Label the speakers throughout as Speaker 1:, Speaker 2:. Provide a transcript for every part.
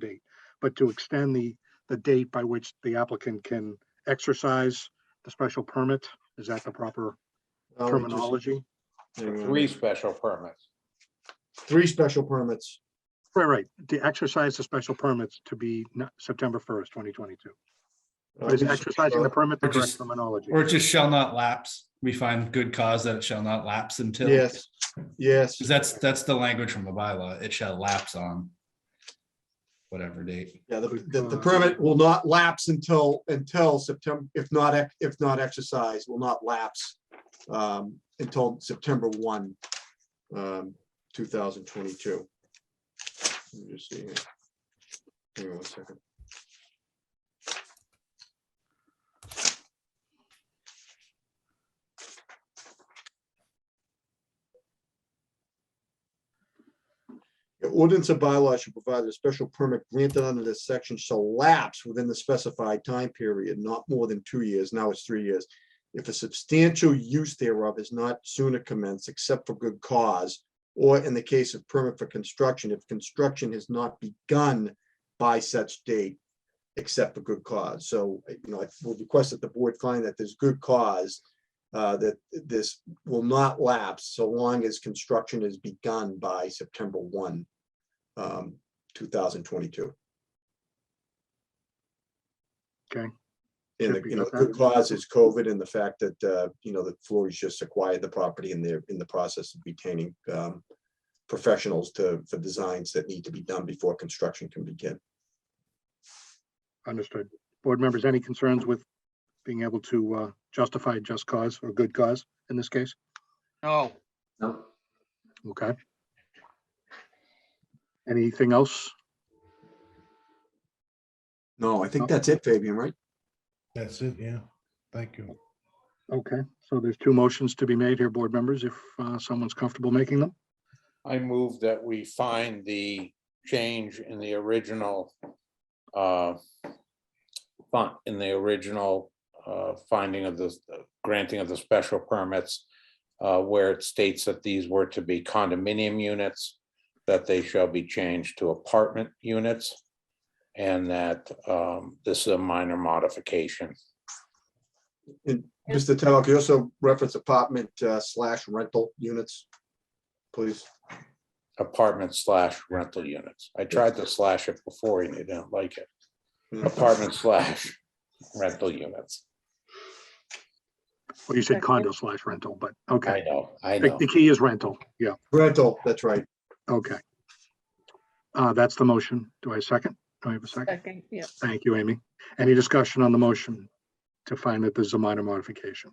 Speaker 1: date, but to extend the, the date by which the applicant can exercise the special permit. Is that the proper
Speaker 2: Uh, we just-
Speaker 1: terminology?
Speaker 2: there we
Speaker 3: Three
Speaker 2: go.
Speaker 3: special permits.
Speaker 2: Three special permits.
Speaker 1: Right, right. To exercise the special permits to be not- September first, twenty twenty-two.
Speaker 2: Uh,
Speaker 1: But is
Speaker 2: we just-
Speaker 1: Oh, exercising the permit the
Speaker 4: Or
Speaker 1: correct
Speaker 4: just-
Speaker 1: terminology?
Speaker 4: Or it just shall not lapse. We find good cause that it shall not lapse until.
Speaker 2: Yes, yes,
Speaker 4: 'Cause that's, that's the language from the bylaw. It shall lapse on whatever date.
Speaker 2: yeah, the, the,
Speaker 1: Uh,
Speaker 2: the permit will not lapse until, until September, if not, ex- if not exercised, will not lapse um, until September one, um, two thousand twenty-two. Let me just see here. Give me one second. The ordinance or bylaw should provide that a special permit granted under this section shall lapse within the specified time period, not more than two years. Now it's three years. If a substantial use thereof is not sooner commenced except for good cause, or in the case of permit for construction, if construction has not begun by such date, except for good cause. So, you know, I will request that the board find that there's good cause uh, that this will not lapse so long as construction is begun by September one, um, two thousand twenty-two.
Speaker 1: Okay.
Speaker 2: And, the-
Speaker 1: Should be
Speaker 2: you know,
Speaker 1: okay.
Speaker 2: good cause is COVID and the fact that, uh, you know, that Florey's just acquired the property and they're in the process of retaining, um, professionals to, for designs that need to be done before construction can begin.
Speaker 1: Understood. Board members, any concerns with being able to uh, justify just cause or good cause in this case?
Speaker 5: No,
Speaker 1: Okay. Anything else?
Speaker 2: No, I think that's it, Fabian, right?
Speaker 6: That's it, yeah. Thank you.
Speaker 1: Okay, so there's two motions to be made here, board members, if uh, someone's comfortable making them.
Speaker 3: I move that we find the change in the original uh, font, in the original uh, finding of the granting of the special permits, uh, where it states that these were to be condominium units, that they shall be changed to apartment units, and that um, this is a minor modification.
Speaker 2: And Mr. Talk, you also reference apartment uh, slash rental units, please.
Speaker 3: apartment slash rental units. I tried to slash it before and they didn't like it.
Speaker 2: Yeah.
Speaker 3: Apartment slash rental units.
Speaker 1: Well, you said condo slash rental, but
Speaker 3: I
Speaker 1: okay.
Speaker 3: know, I
Speaker 1: The
Speaker 3: know.
Speaker 1: the key is rental. Yeah,
Speaker 2: Rental, that's right.
Speaker 1: okay. Uh, That's the motion. Do I second? Do I have a second?
Speaker 7: Second, yeah.
Speaker 1: Thank you, Amy. Any discussion on the motion to find that there's a minor modification?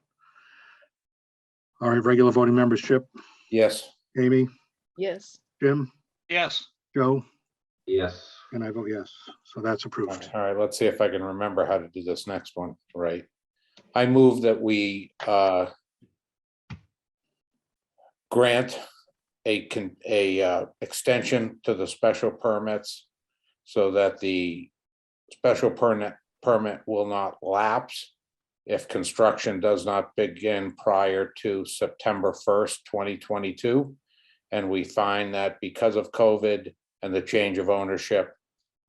Speaker 1: All right, regular voting membership,
Speaker 3: Yes,
Speaker 1: Amy,
Speaker 7: Yes,
Speaker 1: Jim,
Speaker 5: yes,
Speaker 1: Joe,
Speaker 8: Yes,
Speaker 1: and I vote yes. So that's
Speaker 3: all
Speaker 1: approved.
Speaker 3: right, let's see if I can remember how to do this next one, right? I move that we uh grant a con, a uh extension to the special permits so that the special permit, permit will not lapse if construction does not begin prior to September first, twenty twenty-two. And we find that because of COVID and the change of ownership,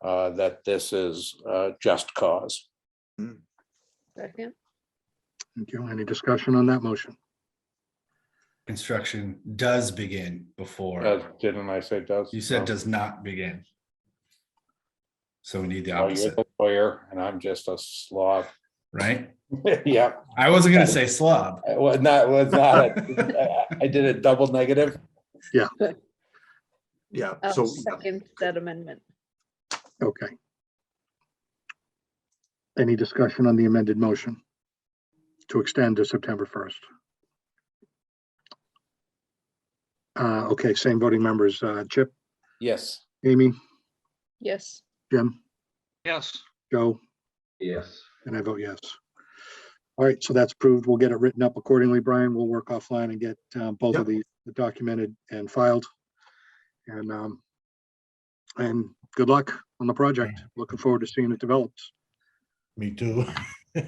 Speaker 3: uh, that this is, uh, just cause.
Speaker 7: second,
Speaker 1: Thank you. Any discussion on that motion?
Speaker 4: Construction does begin
Speaker 3: Does- Oh.
Speaker 4: before,
Speaker 3: Uh, Didn't I say does?
Speaker 4: you said
Speaker 3: No.
Speaker 4: does not begin. So we need the
Speaker 3: Oh, You're
Speaker 4: opposite,
Speaker 3: the lawyer and I'm just a slob.
Speaker 4: right?
Speaker 3: Yeah,
Speaker 4: I wasn't gonna say slob.
Speaker 3: it was not, was not, a- I I did a double negative.
Speaker 2: Yeah,
Speaker 7: I'll
Speaker 2: so
Speaker 7: Oh, uh, second that amendment.
Speaker 1: Okay. Any discussion on the amended motion to extend to September 1st? Uh, Okay, same voting members, uh, Chip,
Speaker 3: Yes,
Speaker 1: Amy,
Speaker 7: Yes,
Speaker 1: Jim,
Speaker 5: yes,
Speaker 1: Joe,
Speaker 8: yes,
Speaker 1: and I vote yes. All right, so that's approved. We'll get it written up accordingly, Brian. We'll work offline and get uh, both of these documented and filed. And, um, and good luck on the project. Looking forward to seeing it develops.
Speaker 6: Me too. All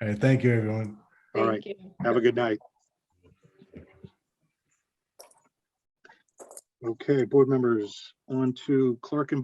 Speaker 6: right, thank you, everyone.
Speaker 1: All right.
Speaker 7: thank you.
Speaker 1: Have a good night. Okay, board members, on to clerk and